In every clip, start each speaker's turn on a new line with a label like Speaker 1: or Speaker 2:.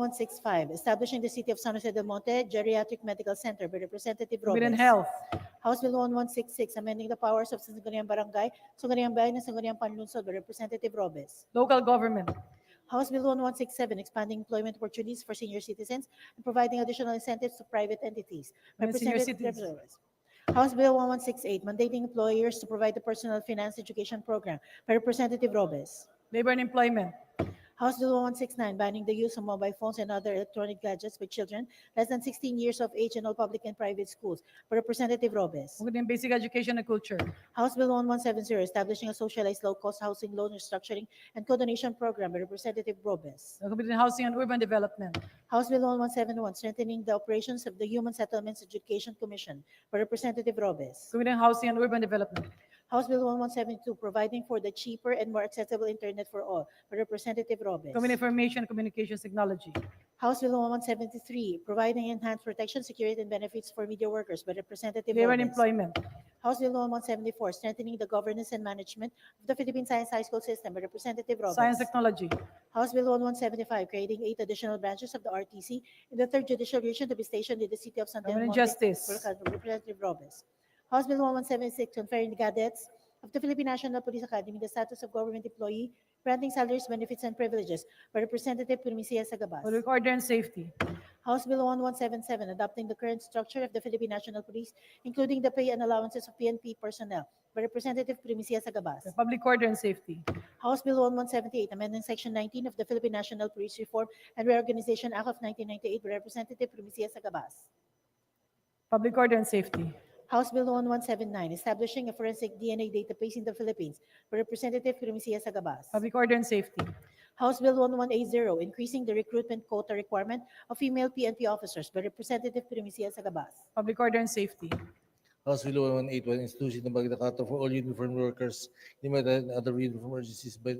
Speaker 1: 165, establishing the City of San Jose del Monte Geriatric Medical Center by Representative Robes.
Speaker 2: Women and Health,
Speaker 1: House Bill 1166, amending the powers of Sangguniang Barangay, Sangguniang Bayan, and Sangguniang Panlunsod by Representative Robes.
Speaker 2: Local Government,
Speaker 1: House Bill 1167, expanding employment opportunities for senior citizens and providing additional incentives to private entities.
Speaker 2: Mga senior
Speaker 1: Representative
Speaker 2: citizens.
Speaker 1: Rebreros. House Bill 1168, mandating employers to provide the personal finance education program by Representative Robes.
Speaker 2: Labor and Employment,
Speaker 1: House Bill 1169, banning the use of mobile phones and other electronic gadgets by children less than 16 years of age in all public and private schools by Representative Robes.
Speaker 2: Women and Basic Education and Culture,
Speaker 1: House Bill 1170, establishing a socialized low-cost housing loan restructuring and co-donation program by Representative Robes.
Speaker 2: the Committee on Housing and Urban Development,
Speaker 1: House Bill 1171, strengthening the operations of the Human Settlements Education Commission by Representative Robes.
Speaker 2: Committee on Housing and Urban Development,
Speaker 1: House Bill 1172, providing for the cheaper and more accessible internet for all by Representative Robes.
Speaker 2: Committee on Information and Communications Technology,
Speaker 1: House Bill 1173, providing enhanced protection, security, and benefits for media workers by Representative
Speaker 2: Labor and
Speaker 1: Robes.
Speaker 2: Employment,
Speaker 1: House Bill 1174, strengthening the governance and management of the Philippine Science High School System by Representative Robes.
Speaker 2: Science Technology,
Speaker 1: House Bill 1175, creating eight additional branches of the RTC in the third judicial region to be stationed in the city of San
Speaker 2: Government
Speaker 1: Telmo.
Speaker 2: Justice.
Speaker 1: Representative Robes. House Bill 1176, conferring the cadets of the Philippine National Police Academy the status of government employee, granting salaries, benefits, and privileges by Representative Primicia Sagabas.
Speaker 2: Public Order and Safety,
Speaker 1: House Bill 1177, adopting the current structure of the Philippine National Police, including the pay and allowances of PNP personnel by Representative Primicia Sagabas.
Speaker 2: the Public Order and Safety,
Speaker 1: House Bill 1178, amending Section 19 of the Philippine National Police Reform and Reorganization Act of 1998 by Representative Primicia Sagabas.
Speaker 2: Public Order and Safety,
Speaker 1: House Bill 1179, establishing a forensic DNA database in the Philippines by Representative Primicia Sagabas.
Speaker 2: Public Order and Safety,
Speaker 1: House Bill 1180, increasing the recruitment quota requirement of female PNP officers by Representative Primicia Sagabas.
Speaker 2: Public Order and Safety,
Speaker 3: House Bill 1181, institution ng Magna Carta for all uniform workers, limited and other uniform agencies by...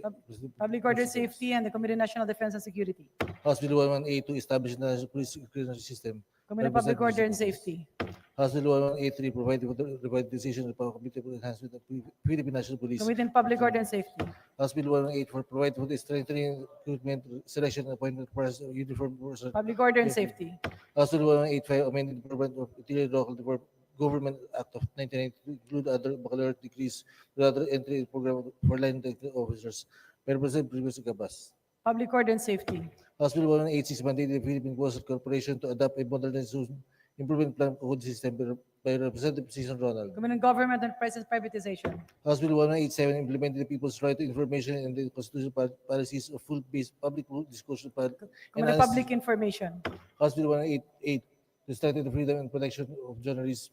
Speaker 2: Public Order and Safety, and the Committee on National Defense and Security,
Speaker 3: House Bill 1182, establish the National Police Security System.
Speaker 2: Committee on Public Order and Safety,
Speaker 3: House Bill 1183, provide for the revitalization of the Committee for Enhancement of Philippine National Police.
Speaker 2: Committee on Public Order and Safety,
Speaker 3: House Bill 1184, provide for the strengthening recruitment, selection, and appointment process of uniform personnel.
Speaker 2: Public Order and Safety,
Speaker 3: House Bill 1185, amended the Government of Interior Local Develop- Government Act of 1992 include other baccalaureate degrees with other entry program for line technical officers. By Representative Primus Gabas.
Speaker 2: Public Order and Safety,
Speaker 3: House Bill 1186, mandated the Philippine Coastal Corporation to adopt a modernization improvement plan code system by- by Representative Season Ronald.
Speaker 2: Committee on Government and Press Privatization,
Speaker 3: House Bill 1187, implemented the people's right to information and the constitutional pol- policies of full-based public discussion. pol-
Speaker 2: Committee on
Speaker 3: enhanced-
Speaker 2: Public Information,
Speaker 3: House Bill 188, to strengthen the freedom and protection of journalists,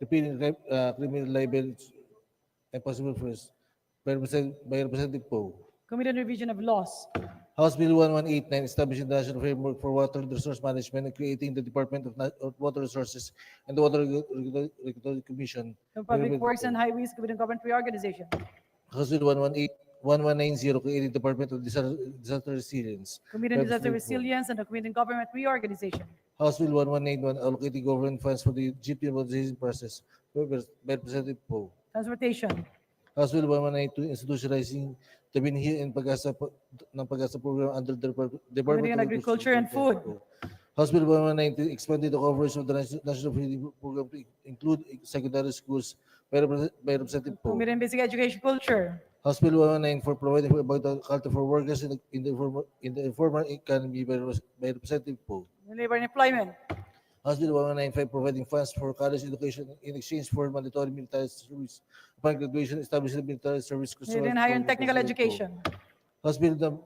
Speaker 3: repealing rep- uh, criminal libel and possible first by Represent- by Representative Poe.
Speaker 2: Committee on Revision of Laws,
Speaker 3: House Bill 1189, establishing the national framework for water resource management and creating the Department of Na- of Water Resources and the Water Regu- Regu- Regulatory Commission.
Speaker 2: Committee on
Speaker 3: by
Speaker 2: Public
Speaker 3: Representative
Speaker 2: Works and
Speaker 3: Poe.
Speaker 2: Highways, Committee on Government Reorganization,
Speaker 3: House Bill 118 1190, creating Department of Disas- Disaster Resilience.
Speaker 2: Committee on
Speaker 3: by
Speaker 2: Disaster
Speaker 3: Representative Poe.
Speaker 2: Resilience, and the Committee on Government Reorganization,
Speaker 3: House Bill 1181, allocating government funds for the GP modernization process by Repres- by Representative Poe.
Speaker 2: Transportation,
Speaker 3: House Bill 1192 institutionalizing the binhi and pag-asa po- ng pag-asa program under the Depar- Department
Speaker 2: Committee on
Speaker 3: of
Speaker 2: Agriculture and Food.
Speaker 3: House Bill 1190 expanded the coverage of the nas- National Feeding Program to include secondary schools by Repre- by Representative Poe.
Speaker 2: Committee on Basic Education Culture,
Speaker 3: House Bill 1194 providing for about culture for workers in the in the informal in the informal economy by Repres- by Representative Poe.
Speaker 2: Labor and Employment,
Speaker 3: House Bill 1195 providing funds for college education in exchange for mandatory military service upon graduation establishing the military service.
Speaker 2: Committee
Speaker 3: Consultant
Speaker 2: on Higher and
Speaker 3: Program,
Speaker 2: Technical
Speaker 3: Representative Poe.
Speaker 2: Education,
Speaker 3: House Bill Num-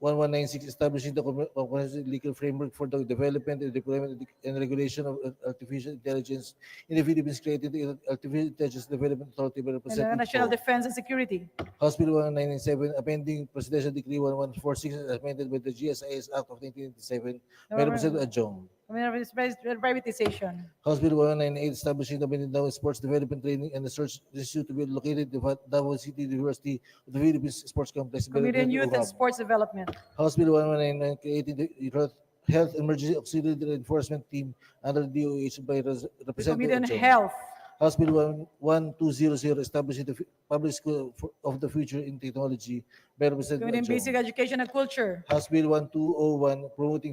Speaker 3: 1196 establishing the com- comprehensive legal framework for the development and deployment and regulation of ar- artificial intelligence in the Philippines created the Artificial Intelligence Development Authority by
Speaker 2: and the
Speaker 3: Representative
Speaker 2: National
Speaker 3: Poe.
Speaker 2: Defense and Security,
Speaker 3: House Bill 1997 amending Presidential Decree 1146 as amended by the GSIS Act of 1987 by
Speaker 2: November-
Speaker 3: Representative Adjong.
Speaker 2: Committee on Privat- Privatization,
Speaker 3: House Bill 198 establishing the Mindanao Sports Development Training and Research Institute to be located in Davao City University of the Philippines Sports Complex. by
Speaker 2: Committee on
Speaker 3: Representative
Speaker 2: Youth and
Speaker 3: Uhab.
Speaker 2: Sports Development,
Speaker 3: House Bill 1199 creating the Health- Health Emergency Auxiliary Reinforcement Team under DOH by
Speaker 2: Committee
Speaker 3: Res-
Speaker 2: on
Speaker 3: Representative Ochoa.
Speaker 2: Health,
Speaker 3: House Bill 11200 establishing the fu- Public School for- of the Future in Technology by
Speaker 2: Committee on
Speaker 3: Representative
Speaker 2: Basic
Speaker 3: Ochoa.
Speaker 2: Education and Culture,
Speaker 3: House Bill 1201 promoting